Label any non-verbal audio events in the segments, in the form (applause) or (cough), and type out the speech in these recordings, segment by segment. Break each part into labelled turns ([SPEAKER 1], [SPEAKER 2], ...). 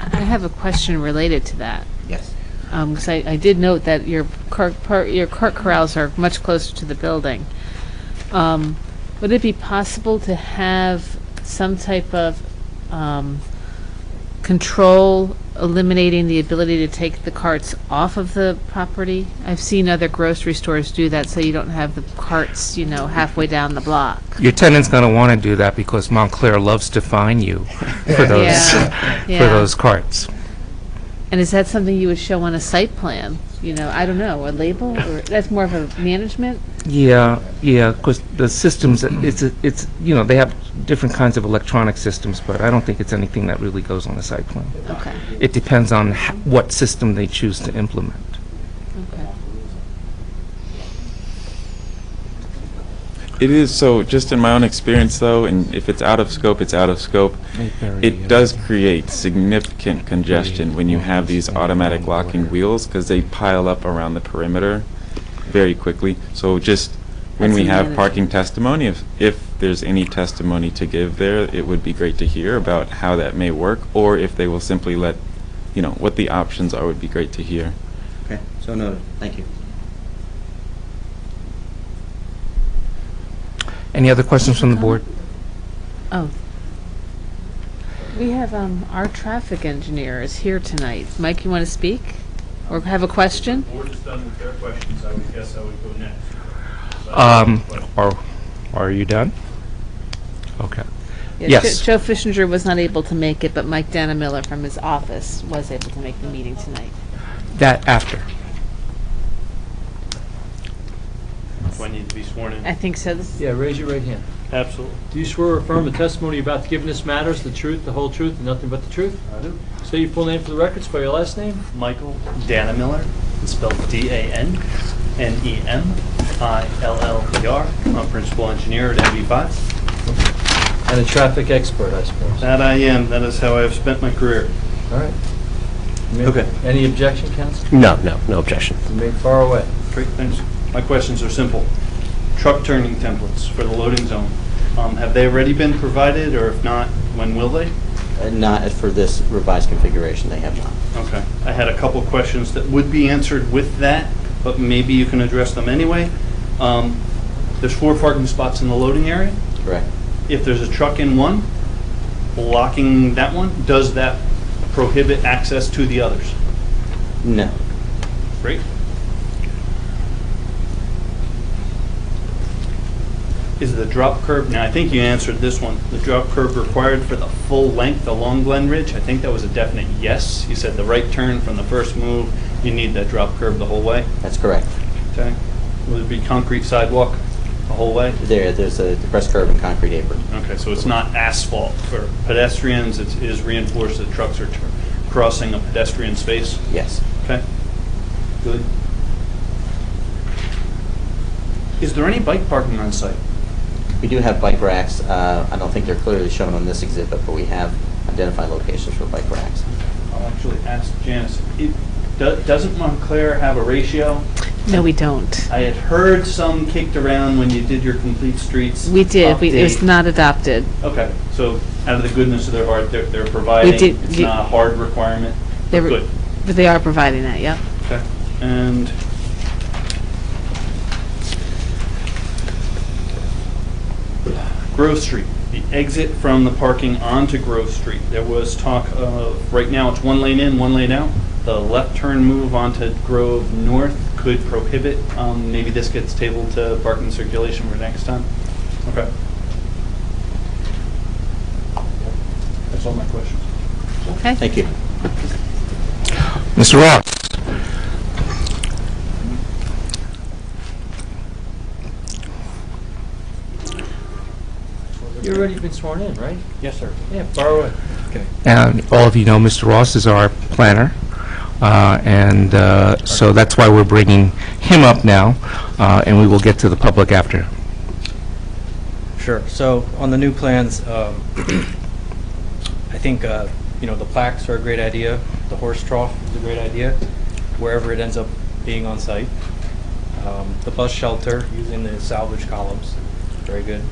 [SPEAKER 1] have a question related to that.
[SPEAKER 2] Yes.
[SPEAKER 1] Because I, I did note that your cart, par- your cart corrals are much closer to the building. Um, Would it be possible to have some type of um, control eliminating the ability to take the carts off of the property? I've seen other grocery stores do that, so you don't have the carts, you know, halfway down the block.
[SPEAKER 3] Your tenant's going to want to do that because Montclair loves to fine you for those,
[SPEAKER 1] Yeah,
[SPEAKER 3] (laughs) for
[SPEAKER 1] yeah.
[SPEAKER 3] those carts.
[SPEAKER 1] And is that something you would show on a site plan? You know, I don't know, a label, or, that's more of a management?
[SPEAKER 3] Yeah, yeah, because the systems, it's, it's, you know, they have different kinds of electronic systems, but I don't think it's anything that really goes on the site plan.
[SPEAKER 1] Okay,
[SPEAKER 3] It depends on h- what system they choose to implement.
[SPEAKER 1] okay.
[SPEAKER 4] It is so. Just in my own experience, though, and if it's out of scope, it's out of scope. It does create significant congestion when you have these automatic locking wheels because they pile up around the perimeter very quickly. So just when
[SPEAKER 1] That's
[SPEAKER 4] we have
[SPEAKER 1] another-
[SPEAKER 4] parking testimony, if, if there's any testimony to give there, it would be great to hear about how that may work, or if they will simply let, you know, what the options are would be great to hear.
[SPEAKER 2] Okay, so noted. Thank you.
[SPEAKER 3] Any other questions from the board?
[SPEAKER 1] Oh. We have, um, our traffic engineer is here tonight. Mike, you want to speak? Or have a question?
[SPEAKER 5] The board is done with their questions, I would guess I would go next. So I have a
[SPEAKER 3] Um,
[SPEAKER 5] question.
[SPEAKER 3] Are, are you done? Okay.
[SPEAKER 1] Yeah, Jo-
[SPEAKER 3] Yes.
[SPEAKER 1] Joe Fishinger was not able to make it, but Mike Miller from his office was able to make the meeting tonight.
[SPEAKER 3] That after.
[SPEAKER 5] Do I need to be sworn in?
[SPEAKER 1] I think so. This-
[SPEAKER 6] Yeah, raise your right hand.
[SPEAKER 5] Absolutely.
[SPEAKER 6] Do you swear or affirm the testimony you're about to give in this matter is the truth, the whole truth, and nothing but the truth?
[SPEAKER 5] I do.
[SPEAKER 6] Say your full name for the record, spell your last name.
[SPEAKER 5] Michael Danamiller, it's spelled E D-A-N-N-E-M-I-L-L-E-R. E I'm principal engineer at MB5.
[SPEAKER 6] And a traffic expert, I suppose.
[SPEAKER 5] That I am, that is how I have spent my career.
[SPEAKER 6] All right. You may-
[SPEAKER 5] Okay.
[SPEAKER 6] Any objection, counsel?
[SPEAKER 7] No, no, no objection.
[SPEAKER 6] You may far away.
[SPEAKER 5] Great, thanks. My questions are simple. Truck turning templates for the loading zone, Um, have they already been provided, or if not, when will they?
[SPEAKER 2] Uh, Not for this revised configuration, they have not.
[SPEAKER 5] Okay. I had a couple questions that would be answered with that, but maybe you can address them anyway. Um, There's four parking spots in the loading area.
[SPEAKER 2] Correct.
[SPEAKER 5] If there's a truck in one, blocking that one, does that prohibit access to the others?
[SPEAKER 2] No.
[SPEAKER 5] Great. Is the drop curb, now I think you answered this one, the drop curb required for the full length along Glen Ridge? I think that was a definite yes. You said the right turn from the first move, you need that drop curb the whole way,
[SPEAKER 2] That's correct.
[SPEAKER 5] okay? Will it be concrete sidewalk the whole way?
[SPEAKER 2] There, there's a depressed curb and concrete apron.
[SPEAKER 5] Okay, so it's not asphalt for pedestrians, it is reinforced that trucks are tr- crossing a pedestrian space?
[SPEAKER 2] Yes.
[SPEAKER 5] Okay. Good. Is there any bike parking on site?
[SPEAKER 2] We do have bike racks. Uh, I don't think they're clearly shown on this exhibit, but we have identified locations for bike racks.
[SPEAKER 5] I'll actually ask Janice. It- do- Doesn't Montclair have a ratio?
[SPEAKER 1] No, we don't.
[SPEAKER 5] I had heard some kicked around when you did your complete streets.
[SPEAKER 1] We did. We- It was
[SPEAKER 5] update.
[SPEAKER 1] not adopted.
[SPEAKER 5] Okay, so out of the goodness of their heart, they're, they're providing.
[SPEAKER 1] did-
[SPEAKER 5] It's
[SPEAKER 1] you-
[SPEAKER 5] not a hard requirement.
[SPEAKER 1] They were-
[SPEAKER 5] Good.
[SPEAKER 1] But they are providing that, yep.
[SPEAKER 5] Okay, and Grove Street, the exit from the parking onto Grove Street, there was talk of, right now it's one lane in, one lane out. The left turn move onto Grove North could prohibit, um, maybe this gets tabled to parking circulation for next time. Okay. That's all my questions.
[SPEAKER 1] Okay?
[SPEAKER 2] Thank you.
[SPEAKER 3] Mr. Rouse?
[SPEAKER 6] You've already been sworn in, right?
[SPEAKER 5] Yes, sir.
[SPEAKER 6] Yeah, far away.
[SPEAKER 3] And all of you know, Mr. Ross is our planner, uh, and uh, so that's why we're bringing him up now, uh, and we will get to the public after.
[SPEAKER 8] Sure. So on the new plans, um, (clears throat) I think, uh, you know, the plaques are a great idea. The horse trough is a great idea, wherever it ends up being on site. Um, The bus shelter, using the salvage columns, very good.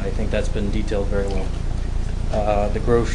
[SPEAKER 8] I think that's been detailed very well. Uh, The grocery